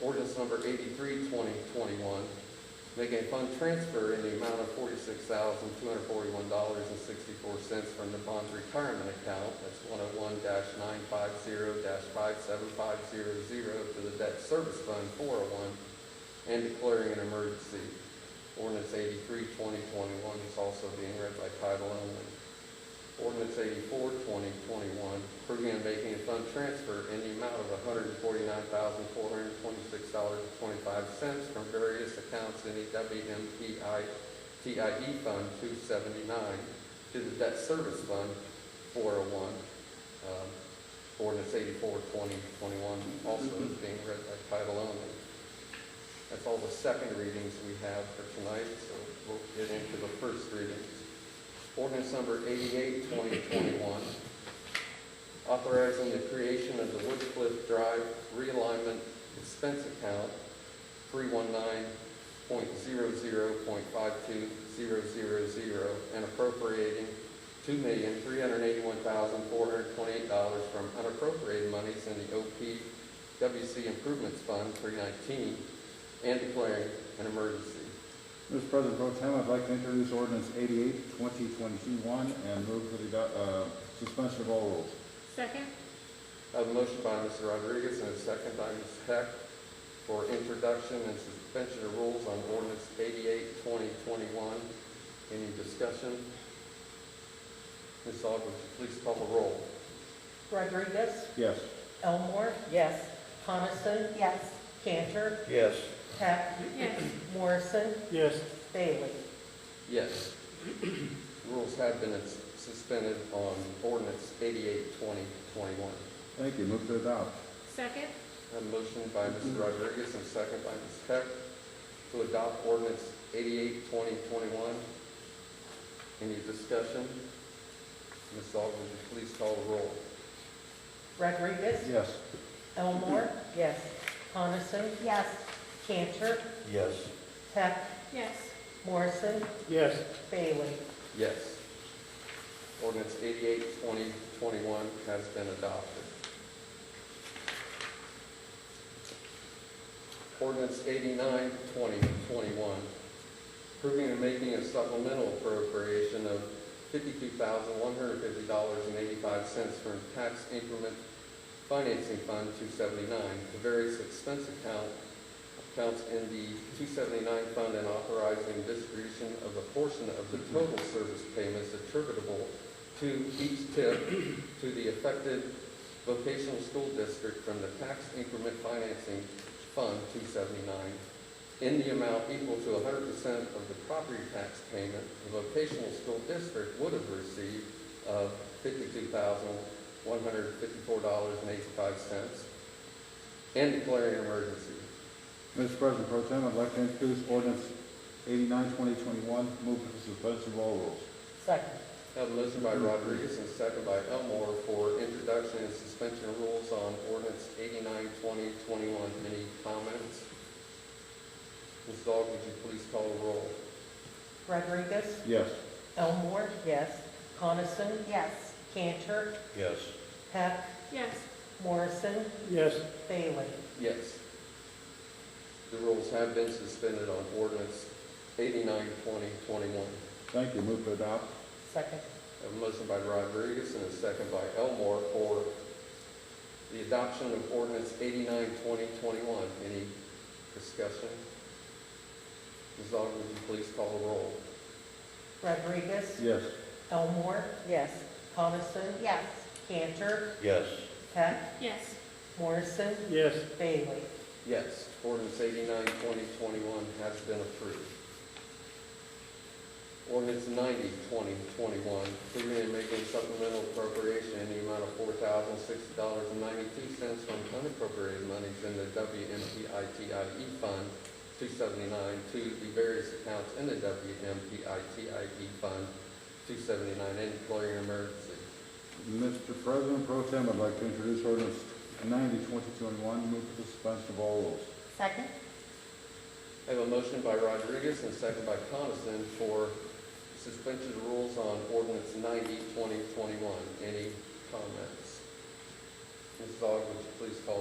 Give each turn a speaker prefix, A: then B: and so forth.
A: ordinance number 83-2021, making a fund transfer in the amount of forty-six thousand, two hundred forty-one dollars and sixty-four cents from the bond's retirement account, that's one oh one nine five zero five seven five zero zero, to the debt service fund four oh one, and declaring an emergency. Ordinance 83-2021 is also being read by title only. Ordinance 84-2021, approving and making a fund transfer in the amount of hundred and forty-nine thousand, four hundred and twenty-six dollars and twenty-five cents from various accounts in E the WMPI TIE E Fund two seventy-nine to the Debt Service Fund four oh one. Um, Ordinance 84-2021 also is being read by title only. That's all the second readings we have for tonight, so we'll get into the first readings. Ordinance number 88-2021, authorizing the creation of the Woodcliff Drive realignment expense account, three one nine point zero zero point five two zero zero zero, and appropriating two million, three hundred eighty-one thousand, four hundred twenty-eight dollars from unappropriated monies in the OPWC Improvements Fund, three nineteen, and declaring an emergency.
B: Mr. President Pro Tem, I'd like to introduce ordinance 88, 2021, and move for the ado- uh, suspension of all rules.
C: Second?
A: I have a motion by Mr. Rodriguez and a second by Ms. Heck for introduction and suspension of rules on ordinance 88-2021. Any discussion? Ms. Aug, would you please call the roll?
D: Rodriguez,
B: Yes.
D: Elmore,
E: Yes.
D: Coniston,
E: Yes.
D: Cantor,
F: Yes.
D: Heck,
C: Yes.
D: Morrison,
F: Yes.
D: Bailey.
A: Yes. Rules have been suspended on ordinance 88-2021.
B: Thank you. Move to adopt.
C: Second?
A: A motion by Mr. Rodriguez and second by Ms. Peck to adopt ordinance 88-2021. Any discussion? Ms. Aug, would you please call the roll?
D: Rodriguez,
B: Yes.
D: Elmore,
E: Yes.
D: Coniston,
E: Yes.
D: Cantor,
F: Yes.
D: Heck,
C: Yes.
D: Morrison,
F: Yes.
D: Bailey.
A: Yes. Ordinance 88-2021 has been adopted. Ordinance 89-2021, approving and making a supplemental appropriation of fifty-two thousand, one hundred fifty dollars and eighty-five cents from tax increment financing fund two seventy-nine to various expense account accounts in the 279 fund and authorizing distribution of a portion of the total service payments attributable to each tip to the affected vocational school district from the tax increment financing fund 279 in the amount equal to 100% of the property tax payment the vocational school district would have received uh, of $52,154.85 and declaring an emergency.
B: Mr. President Pro Tem, I'd like to introduce ordinance 89, 2021, move for the suspension of all rules.
D: Second.
A: Have a motion by Rodriguez and a second by Elmore for introduction and suspension of rules on ordinance 89-2021. Any comments? Ms. Aug, would you please call the roll?
D: Rodriguez,
B: Yes.
D: Elmore,
E: Yes.
D: Coniston,
E: Yes.
D: Cantor,
F: Yes.
D: Heck,
C: Yes.
D: Morrison,
F: Yes.
D: Bailey.
A: Yes. The rules have been suspended on ordinance 89-2021.
B: Thank you. Move to adopt.
D: Second.
A: Have a motion by Rodriguez and a second by Elmore for the adoption of ordinance 89-2021. Any discussion? Ms. Aug, would you please call the roll?
D: Rodriguez,
B: Yes.
D: Elmore,
E: Yes.
D: Coniston,
E: Yes.
D: Cantor,
F: Yes.
D: Heck,
C: Yes.
D: Morrison,
F: Yes.
D: Bailey.
A: Yes, ordinance 89-2021 has been approved. Ordinance 90-2021, approving and making supplemental appropriation in the amount of four thousand sixty dollars and ninety-two cents from unappropriated monies in the WMPITIE E Fund two seventy-nine to the various accounts in the WMPITIE E Fund two seventy-nine and declaring an emergency.
B: Mr. President Pro Tem, I'd like to introduce ordinance 90, 2021, move for the suspension of all rules.
E: Second?
A: I have a motion by Rodriguez and a second by Coniston for suspension of rules on ordinance 90-2021. Any comments? Mrs. Aug, would you please call